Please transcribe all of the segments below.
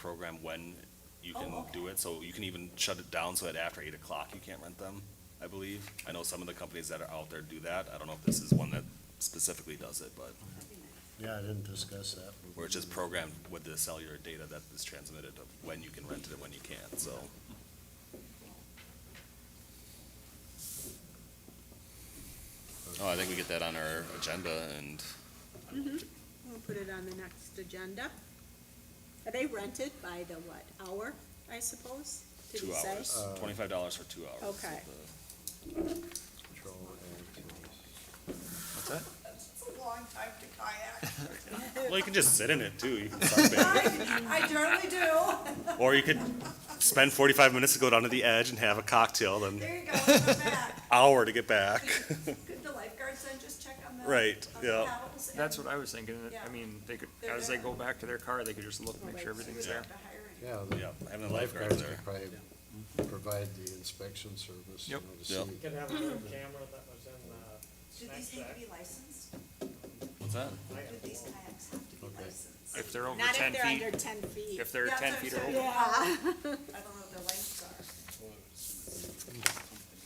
program when you Oh, can okay. do it, so you can even shut it down so that after eight o'clock you can't rent them, I believe. I know some of the companies that are out there do that, I don't know if this is one that specifically does it, but Yeah, I didn't discuss that. where it's just programmed with the cellular data that is transmitted of when you can rent it and when you can't, so. Oh, I think we get that on our agenda and We'll put it on the next agenda. Are they rented by the what, hour, I suppose? Did two you say? hours, twenty-five dollars for two hours. Okay. of the- What's that? It's a long time to kayak. Well, you can just sit in it too. You can sunbathe. I generally do. or you could spend 45 minutes to go down to the edge and have a cocktail, then There you go, I'm back. hour to get back. Could the lifeguards then just check on the? Right, on the yeah. paddles and- That's what I was thinking, I Yeah. mean, they could, They're as they there. go back to their car, they could just look, make sure Right. We everything's would there. have to hire you. Yeah, Yeah, the having the lifeguards lifeguards could there. probably provide the inspection service, you Yep. know, to Yep. see. You could have a little camera that was in Do the these snack need to shack. be licensed? What's that? Do I have these one. kayaks have to be Okay. licensed? If they're over Not ten if they're feet, under ten feet. if they're Yeah, ten so- feet so- or over. Yeah. I don't know what their lengths are.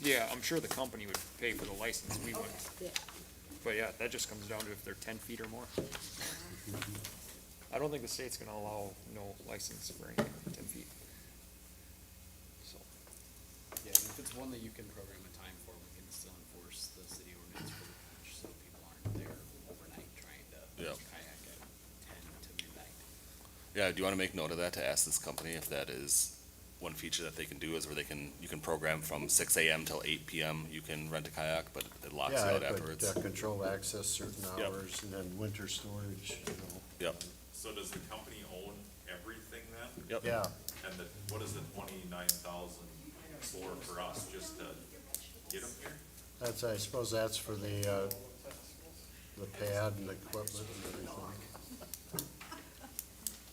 Yeah, I'm sure the company would pay for the license, we wouldn't. Yeah. But yeah, that just comes down to if they're ten feet or more. I don't think the state's gonna allow no license for anything over ten feet. So, Yeah, and if it's one that you can program a time for, we can still enforce the city ordinance for the beach, so people aren't there overnight trying to Yep. kayak at ten to midnight. Yeah, do you want to make note of that to ask this company if that is one feature that they can do is where they can, you can program from 6 a.m. till 8 p.m. You can rent a kayak, but it locks you Yeah, I out could afterwards. uh, control access certain Yep. hours and then winter storage, you know. Yep. So does the company own everything then? Yep. Yeah, And the, what is the twenty-nine thousand for, for us, just to get them here? that's, I suppose that's for the, uh, the pad and the equipment and everything.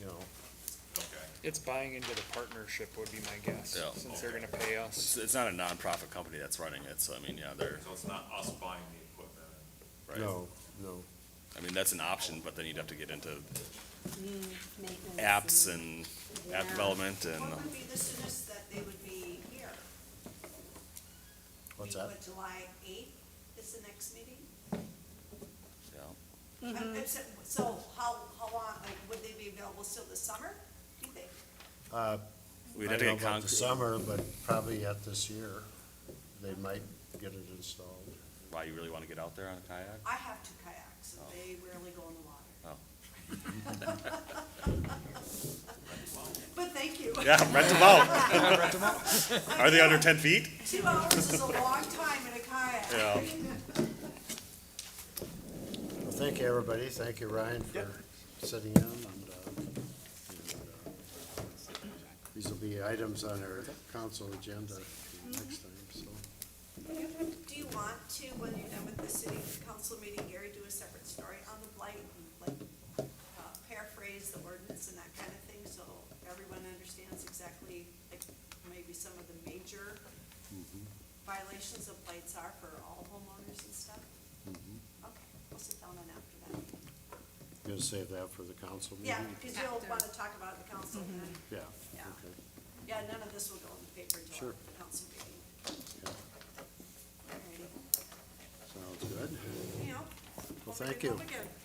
You know, Okay. it's buying into the partnership would be my guess, Yeah. since they're gonna pay It's, us. it's not a nonprofit company that's running it, so I mean, yeah, they're, So it's not us buying the equipment? right? no, no, I mean, that's an option, but then you'd have to get into Maintenance apps and app Yeah. development and, uh, What would be the soonest that they would be here? what's I mean, that? what, July eighth is the next meeting? yeah. I'm- I'm sa- So how, how long, like, would they be available still this summer, do you think? Uh, We'd I have to don't get know about the concrete. summer, but probably yet this year, they might get it installed. Why you really want to get out there on a kayak? I have two kayaks, and they rarely go in the water. Oh. But thank you. Yeah, rent them out. Are they under ten feet? Two hours is a long time in a kayak. Yeah. Well, thank you, everybody. Thank you, Ryan, for sitting in. and, uh, and, uh, These will be items on our council agenda next time, so. Do you want to, when you're done with the city council meeting, Gary, do a separate story on the blight? and Like uh, paraphrase the ordinance and that kind of thing, so everyone understands exactly, like, maybe some of the major violations of blights are for all homeowners and stuff? Okay, we'll sit down on after that. Gonna save that for the council meeting? Yeah, because you'll want to talk about it at the council then. Yeah, Yeah. okay. Yeah, none of this will go in the paper until Sure. after the council meeting. Yeah. Alrighty. Sounds good. You know, Well, open thank it you. up again.